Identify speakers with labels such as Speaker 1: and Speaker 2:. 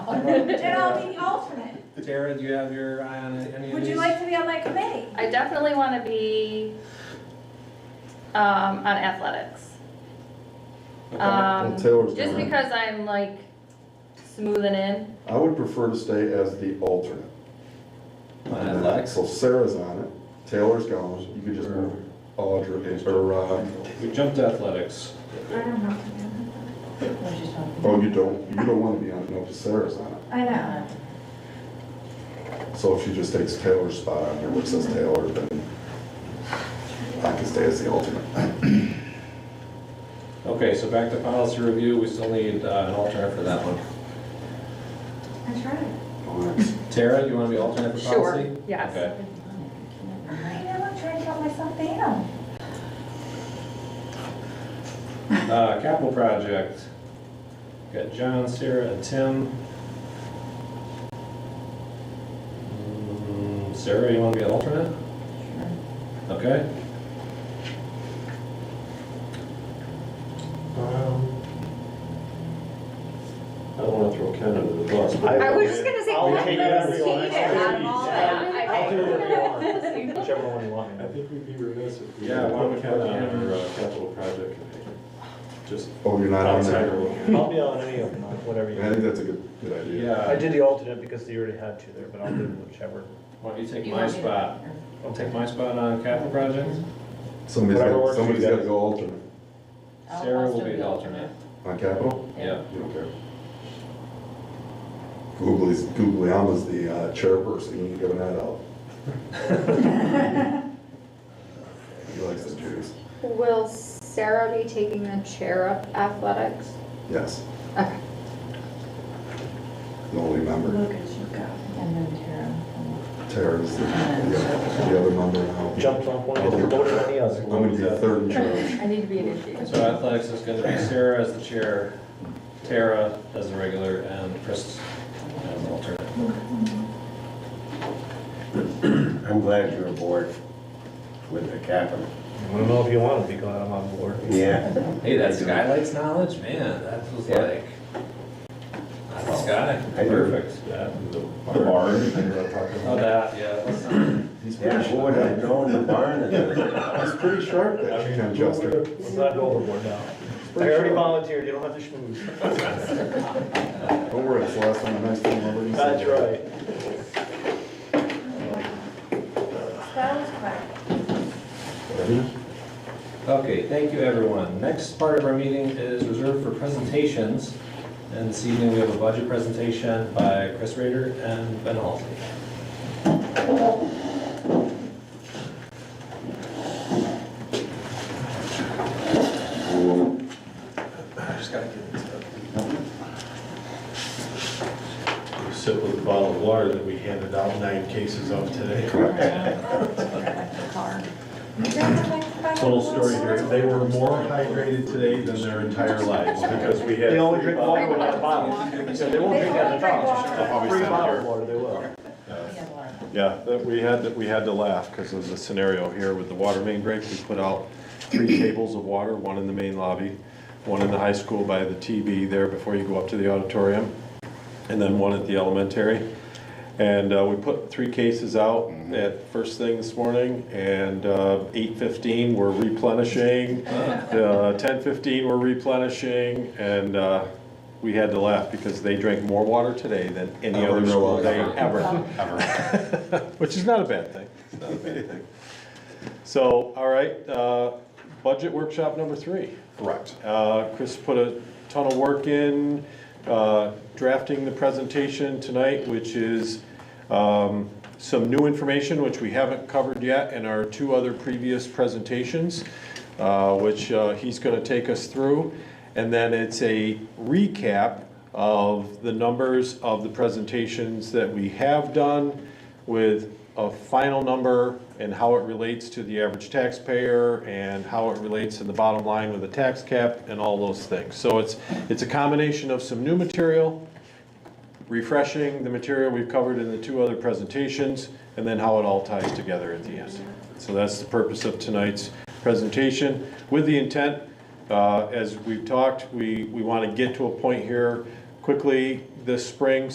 Speaker 1: And I'll be the alternate.
Speaker 2: Tara, do you have your eye on any of these?
Speaker 1: Would you like to be on my committee?
Speaker 3: I definitely want to be um, on athletics.
Speaker 2: Okay.
Speaker 3: Um,
Speaker 4: Well, Taylor's
Speaker 3: just
Speaker 4: doing it.
Speaker 3: because I'm like smoothing in.
Speaker 4: I would prefer to stay as the alternate.
Speaker 2: On athletics?
Speaker 4: So Sarah's on it, Taylor's gone, you could just move Audra, or, uh,
Speaker 2: We jumped to athletics.
Speaker 1: I don't know.
Speaker 4: oh, you don't, you don't wanna be on it, no, 'cause Sarah's on it.
Speaker 1: I know.
Speaker 4: So if she just takes Taylor's spot on here, which says Taylor, then I can stay as the alternate.
Speaker 2: Okay, so back to policy review, we still need uh, an alternate for that one.
Speaker 1: That's right.
Speaker 2: Tara, you want to be alternate for policy?
Speaker 3: Sure, yes.
Speaker 2: Okay.
Speaker 1: I know, I'm trying to calm myself down.
Speaker 2: Uh, Capital project, got John, Sarah, and Tim. Mm, Sarah, you want to be an alternate? Okay.
Speaker 5: Um,
Speaker 2: I don't want to throw Ken under the bus. but-
Speaker 5: I-
Speaker 6: I was just gonna say,
Speaker 5: I'll
Speaker 6: I've
Speaker 5: take
Speaker 6: never
Speaker 5: everyone.
Speaker 6: seen it out of all that.
Speaker 3: Yeah,
Speaker 5: I'll do whatever you want,
Speaker 6: I-
Speaker 5: whichever one you want.
Speaker 7: I think we'd be remiss if we.
Speaker 2: Yeah, why don't we
Speaker 7: Put Ken
Speaker 2: have
Speaker 7: on
Speaker 2: Ken?
Speaker 7: our, uh, capital project committee. Just
Speaker 4: Oh, you're not on
Speaker 7: outsider
Speaker 4: there?
Speaker 7: looking.
Speaker 5: I'll be on any of them, whatever you
Speaker 4: I think
Speaker 5: want.
Speaker 4: that's a good, good idea.
Speaker 5: I
Speaker 2: Yeah,
Speaker 5: did the alternate because they already had two there, but I'll do whichever.
Speaker 2: why don't you take my spot? I'll take my spot on capital project.
Speaker 4: Somebody's
Speaker 5: Whatever
Speaker 4: got,
Speaker 5: works for you
Speaker 4: somebody's gotta
Speaker 5: guys.
Speaker 4: go alternate
Speaker 6: I'll-
Speaker 2: Sarah
Speaker 6: I'll
Speaker 2: will
Speaker 6: still
Speaker 2: be the alternate.
Speaker 4: on Capitol,
Speaker 2: Yeah.
Speaker 4: you don't care. Googly's, Googly Alma's the uh, chairperson, you ain't giving that up. He likes the Jews,
Speaker 8: Will Sarah be taking the chair of athletics?
Speaker 4: yes,
Speaker 8: Okay.
Speaker 4: the only member,
Speaker 6: Look at you go. And then Tara.
Speaker 4: Tara's the, the the other member now.
Speaker 5: Jumped on one, and voted on the other.
Speaker 4: I'm gonna be the third in charge.
Speaker 6: I need to be initiated.
Speaker 2: So athletics is gonna be Sarah as the chair, Tara as the regular, and Chris as the alternate.
Speaker 9: I'm glad you're aboard with the capital.
Speaker 5: I don't know if you want to be glad I'm on board.
Speaker 9: Yeah.
Speaker 2: Hey, that skylights knowledge, man, that was
Speaker 9: Yeah.
Speaker 2: like, that's the sky,
Speaker 9: I do.
Speaker 2: perfect. Yeah.
Speaker 9: The barn.
Speaker 2: Oh, that, yeah. that's not-
Speaker 4: He's pretty
Speaker 9: Yeah,
Speaker 4: sharp.
Speaker 9: boy, I know in the barn.
Speaker 4: He's pretty sharp, that Ken Jester.
Speaker 5: Let's not go overboard now. I already volunteered, you don't have to schmooze.
Speaker 4: Don't worry, it's the last one, the next one, I'll let you see.
Speaker 5: That's right.
Speaker 1: That was quick.
Speaker 2: Okay, thank you, everyone. Next part of our meeting is reserved for presentations. And this evening, we have a budget presentation by Chris Rader and Ben Halsey. I just gotta get this up.
Speaker 7: We Sit with a bottle of water that we handed out nine cases of today.
Speaker 1: You don't have like five
Speaker 7: Total
Speaker 1: little
Speaker 7: story here,
Speaker 1: swords?
Speaker 7: they were more hydrated today than their entire lives because we had.
Speaker 5: They only
Speaker 7: three
Speaker 5: drink water
Speaker 7: bottles.
Speaker 5: when they're bottles. So they won't drink out of the
Speaker 1: They only drink
Speaker 5: bottles.
Speaker 1: water.
Speaker 5: Free bottle of water, they will.
Speaker 7: Yeah, that we had, that we had to laugh because was a scenario here with the water main break. We put out three tables of water, one in the main lobby, one in the high school by the TB there before you go up to the auditorium, and then one at the elementary. And uh, we put three cases out at first thing this morning, and uh, eight fifteen, we're replenishing. Uh, Ten fifteen, we're replenishing, and uh, we had to laugh because they drank more water today than any
Speaker 4: Ever in
Speaker 7: other
Speaker 4: their
Speaker 7: school
Speaker 4: life.
Speaker 7: day ever. Which is not a bad thing. It's not a bad thing. So, all right, uh, budget workshop number three.
Speaker 4: Correct.
Speaker 7: Uh, Chris put a ton of work in, uh, drafting the presentation tonight, which is um, some new information which we haven't covered yet in our two other previous presentations, uh, which uh, he's going to take us through. And then it's a recap of the numbers of the presentations that we have done with a final number and how it relates to the average taxpayer and how it relates to the bottom line with the tax cap and all those things. So it's, it's a combination of some new material, refreshing the material we've covered in the two other presentations, and then how it all ties together at the end. So that's the purpose of tonight's presentation, with the intent, uh, as we've talked, we, we want to get to a point here quickly this spring